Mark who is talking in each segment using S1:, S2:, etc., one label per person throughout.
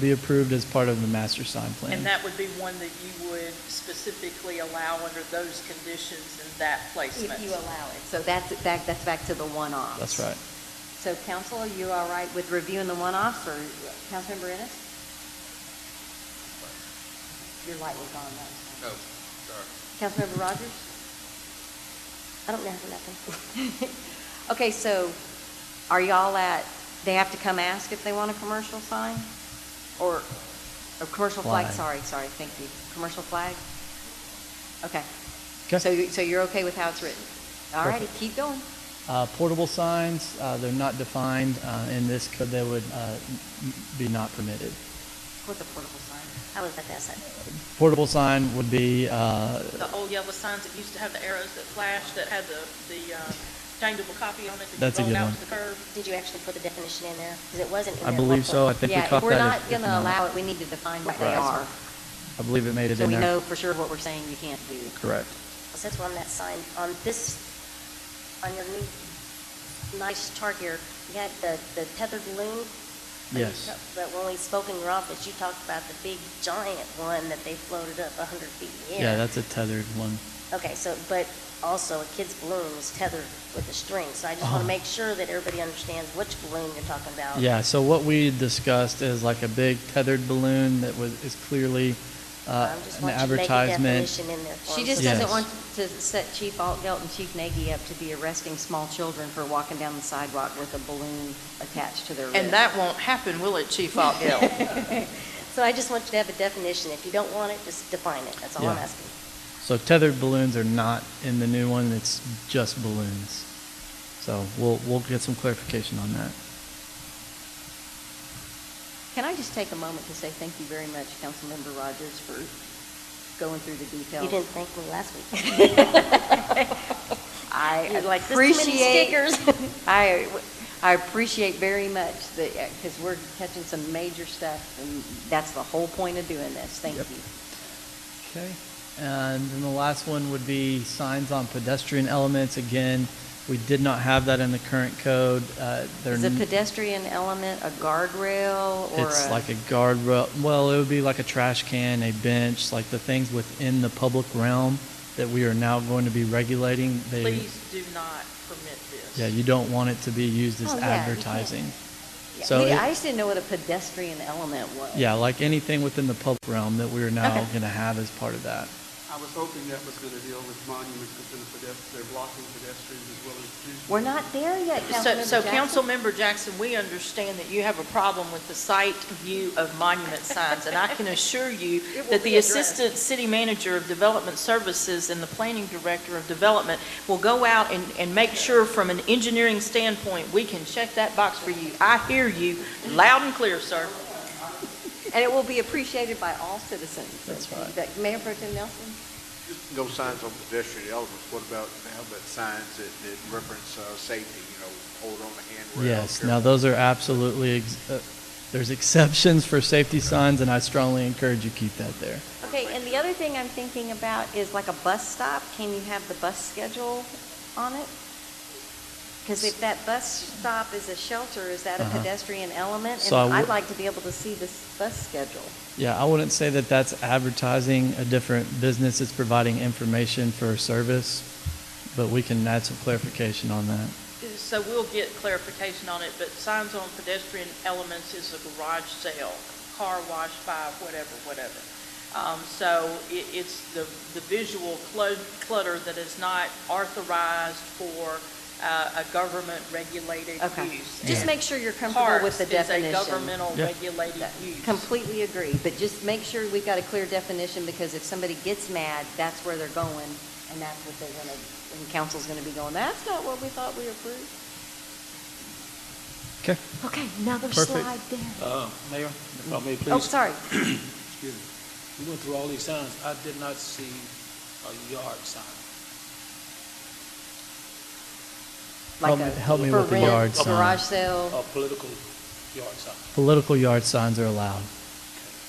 S1: be approved as part of the master sign plan.
S2: And that would be one that you would specifically allow under those conditions and that placement?
S3: If you allow it. So that's, that, that's back to the one-offs.
S1: That's right.
S3: So council, are you all right with reviewing the one-offs or Councilmember Ennis? Your light was on, though.
S4: No, sorry.
S3: Councilmember Rogers? I don't know for nothing. Okay, so are y'all at, they have to come ask if they want a commercial sign? Or, or commercial flag,
S1: Flag.
S3: sorry, sorry, thank you. Commercial flag? Okay.
S1: 'Kay.
S3: So, you- so you're okay with how it's written? All righty,
S1: Perfect.
S3: keep going.
S1: Uh, Portable signs, uh, they're not defined uh, in this code, they would uh, m- be not permitted.
S3: What's a portable sign? I was at that side.
S1: Portable sign would be, uh,
S2: The old yellow signs that used to have the arrows that flashed, that had the, the uh, changeable copy on it that
S1: That's a
S2: you rolled
S1: good
S2: out
S1: one.
S2: to the curb?
S5: Did you actually put the definition in there? Because it wasn't in
S1: I
S5: there.
S1: believe so, I think we
S3: Yeah, if
S1: caught
S3: we're
S1: that.
S3: not
S1: if- if
S3: going to
S1: not,
S3: allow it, we need to define what they
S1: Right.
S3: are.
S1: I believe it made it
S3: So
S1: in
S3: we
S1: there.
S3: know for sure what we're saying you can't do.
S1: Correct.
S5: So that's one that signed, on this, on your new, nice chart here, you got the, the tethered loon. but you
S1: Yes.
S5: talk- But when we spoke in your office, you talked about the big giant one that they floated up a hundred feet in the air.
S1: Yeah, that's a tethered one.
S5: Okay, so, but also a kid's balloon was tethered with a string, so I just want to
S1: Oh.
S5: make sure that everybody understands which balloon you're talking
S3: Oh.
S5: about.
S1: Yeah, so what we discussed is like a big tethered balloon that was, is clearly uh,
S5: I'm just
S1: an
S5: want you to make a
S1: advertisement.
S5: definition in there for
S3: She
S5: them,
S3: just
S5: so
S1: Yes.
S3: doesn't want to set Chief Altgeld and Chief Nagy up to be arresting small children for walking down the sidewalk with a balloon attached to their wrist.
S2: And that won't happen, will it, Chief Ogden?
S5: So I just want you to have a definition. If you don't want it, just define it. That's all I'm
S1: Yeah.
S5: asking.
S1: So tethered balloons are not in the new one, it's just balloons. So we'll, we'll get some clarification on that.
S3: Can I just take a moment to say thank you very much, Councilmember Rogers, for going through the details?
S5: You didn't thank me last week.
S3: I
S5: You're like, "There's too many
S3: appreciate.
S5: stickers."
S3: I, I appreciate very much that, because we're catching some major stuff, and that's the whole point of doing this. Thank
S1: Yep.
S3: you.
S1: Okay, and then the last one would be signs on pedestrian elements. Again, we did not have that in the current code. Uh, they're
S3: Is a
S1: n-
S3: pedestrian element a guardrail or
S1: It's
S3: a-
S1: like a guardrail, well, it would be like a trash can, a bench, like the things within the public realm that we are now going to be regulating. They-
S2: Please do not permit this.
S1: Yeah, you don't want it to be used as
S3: Oh, yeah, you can't.
S1: advertising.
S3: Yeah,
S1: So,
S3: we-
S1: it-
S3: I just didn't know what a pedestrian element was.
S1: yeah, like anything within the public realm that we are now going to have as part of that.
S6: I was hoping that was going to deal with monuments within the pedestrian, they're blocking pedestrians as well as trees.
S3: We're not there yet, Councilmember
S2: So, so
S3: Jackson.
S2: Councilmember Jackson, we understand that you have a problem with the site view of monument signs, and I can assure you
S3: It will
S2: that
S3: be
S2: the
S3: addressed.
S2: Assistant City Manager of Development Services and the Planning Director of Development will go out and, and make sure from an engineering standpoint, we can check that box for you. I hear you loud and clear, sir.
S3: And it will be appreciated by all citizens.
S1: That's right.
S3: That- Mayor Pro Tem Nelson?
S7: No signs on pedestrian elements, what about helmet signs that, that reference, uh, safety, you know, hold on the handrail?
S1: Yes,
S7: careful.
S1: now those are absolutely, ex- uh, there's exceptions for safety signs, and I strongly encourage you keep that there.
S3: Okay, and the other thing I'm thinking about is like a bus stop, can you have the bus schedule on it? Because if that bus stop is a shelter, is that a
S1: Uh-huh.
S3: pedestrian element?
S1: So I
S3: And I'd
S1: would-
S3: like to be able to see this bus schedule.
S1: Yeah, I wouldn't say that that's advertising a different business. It's providing information for a service, but we can add some clarification on that.
S2: So we'll get clarification on it, but signs on pedestrian elements is a garage sale, car wash by, whatever, whatever. Um, so it, it's the, the visual clu- clutter that is not authorized for, uh, a government regulated
S3: Okay.
S2: use.
S3: Just
S2: And
S3: make sure you're comfortable with the
S2: parks is
S3: definition.
S2: a governmental
S1: Yeah.
S2: regulated use.
S3: Completely agree, but just make sure we've got a clear definition, because if somebody gets mad, that's where they're going, and that's what they're gonna, and council's gonna be going, that's not what we thought we approved.
S1: Okay.
S3: Okay, another
S1: Perfect.
S3: slide there.
S8: Uh, Mayor, if I may,
S3: Oh,
S8: please,
S3: sorry.
S8: excuse me. We went through all these signs. I did not see a yard sign.
S3: Like
S1: Help me-
S3: a
S1: help me
S3: for
S1: with the
S3: rent,
S1: yard sign.
S3: Garage sale,
S7: Oh.
S8: A political yard sign.
S1: Political yard signs are allowed.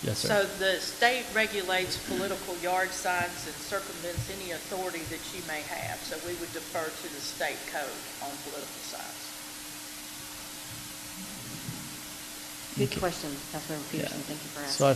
S1: Yes, sir.
S2: So the state regulates political yard signs and circumvents any authority that you may have, so we would defer to the state code on political signs.
S7: Good
S1: Okay.
S7: question, Councilmember Peterson,
S1: Yeah.
S7: thank you for asking.
S1: So I